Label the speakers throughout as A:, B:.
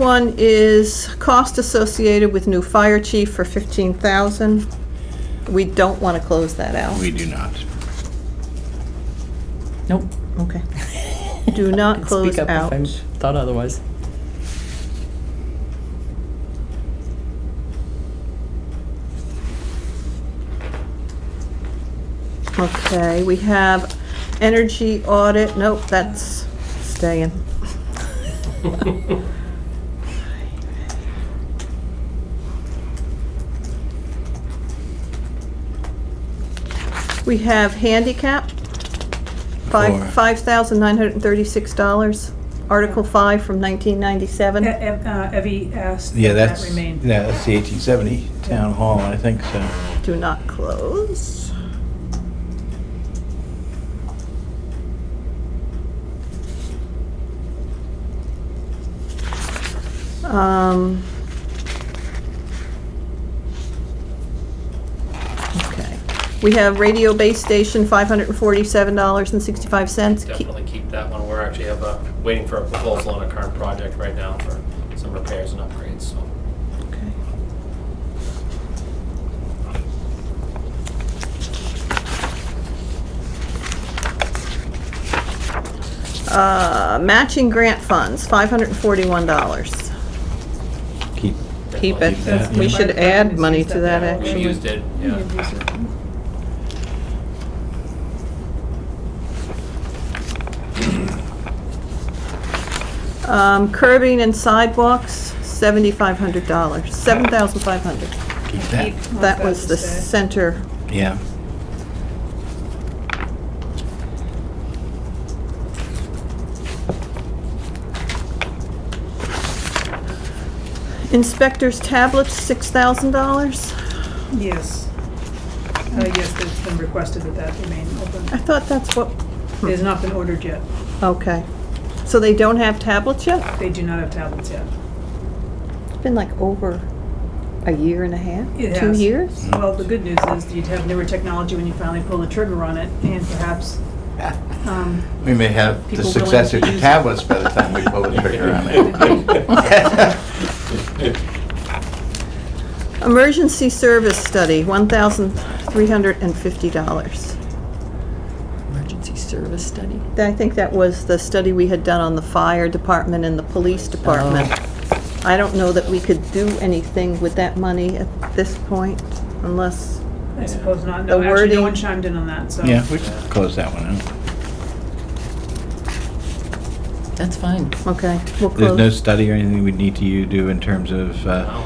A: One is cost associated with new fire chief for 15,000. We don't want to close that out.
B: We do not.
C: Nope.
A: Okay. Do not
C: I can
A: close
C: speak up
A: out.
C: If I'm thought otherwise.
A: Okay, we have energy audit, nope, that's staying. We have handicap,
B: Four.
A: five, five thousand nine hundred and thirty-six dollars, Article five from nineteen ninety-seven.
D: E- Ev- uh, Evie asked
B: Yeah,
D: that that
B: that's,
D: remain.
B: yeah, that's the eighteen seventy town hall, I think so.
A: Do not close. Um. Okay. We have radio base station, five hundred and forty-seven dollars and sixty-five cents.
E: Definitely keep that one. We're actually have a, waiting for a proposal on a current project right now for some repairs and upgrades, so.
A: Uh, matching grant funds, five hundred and forty-one dollars.
B: Keep,
A: Keep it.
B: Keep that,
A: We
B: yeah.
A: should add money to that,
E: We
A: actually.
E: used it, yeah.
A: Um, curbing and sidewalks, seventy-five hundred dollars, seven thousand five hundred.
B: keep
D: Keep
B: that,
D: wants
A: That was
D: to
A: the
D: stay.
A: center,
B: yeah.
A: inspector's tablets, six thousand dollars.
D: Yes. Uh, Yes, it's been requested that that remain
A: I
D: open.
A: thought that's what,
D: It has not been ordered yet.
A: okay. So they don't have tablets yet?
D: They do not have tablets yet.
A: It's been like over a year and a half,
D: It
A: two
D: has.
A: years?
D: Well, the good news is you'd have newer technology when you finally pull the trigger on it, and perhaps, um,
B: We may have the
D: People willing
B: successor
D: to
B: to
D: use it.
B: tablets by the time we pull the trigger on it.
A: Emergency service study, one thousand three hundred and fifty dollars.
C: Emergency service study.
A: I think that was the study we had done on the fire department and the police
C: Oh.
A: department. I don't know that we could do anything with that money at this point unless,
D: I suppose not. No,
A: The
D: actually,
A: wording-
D: no one chimed in on that, so.
B: Yeah, we can close that one out.
C: That's fine.
A: okay, we'll
B: There's no
A: close.
B: study or anything we need to you do in terms of, uh,
E: No, I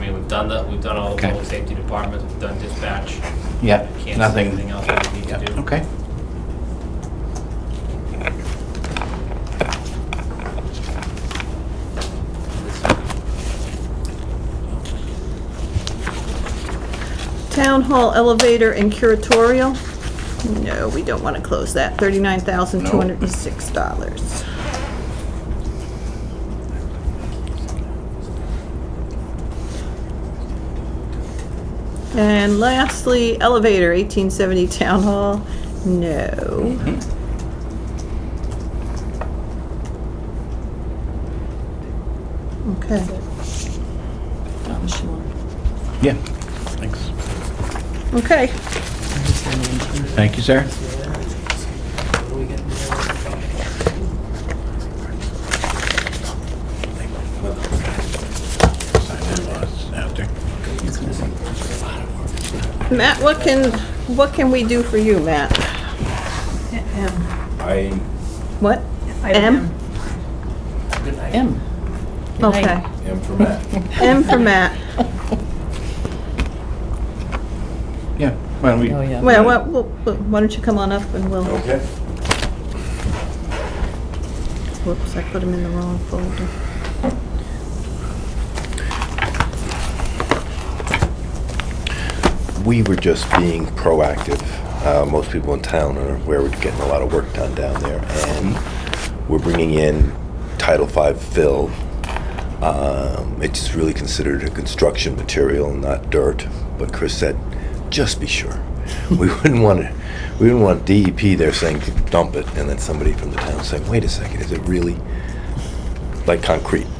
E: mean, we've done that, we've done all the
B: Okay.
E: public safety departments, we've done dispatch.
B: yeah,
E: Can't see anything
B: nothing.
E: else that we need
B: Yeah,
E: to do.
B: okay.
A: Town hall elevator and curatorial? No, we don't want to close that. Thirty-nine thousand, two hundred and six dollars. And lastly, elevator, eighteen seventy town hall? No. Okay.
C: Down the shore.
B: Yeah, thanks.
A: Okay.
B: Thank you, sir.
A: Matt, what can, what can we do for you, Matt?
D: M.
B: I
A: What?
D: Item
A: M?
D: M.
C: M.
A: Okay.
B: am for Matt.
A: M for Matt.
B: Yeah, why don't we?
C: Oh, yeah.
A: Well, why- why why don't you come on up and we'll,
B: Okay.
A: whoops, I put him in the wrong folder.
F: we were just being proactive. Uh, most people in town are aware we're getting a lot of work done down there, and we're bringing in Title V fill. Um, it's really considered a construction material, not dirt. But Chris said, just be sure. we wouldn't want to. We wouldn't want DEP there saying dump it, and then somebody from the town saying, wait a second, is it really like concrete?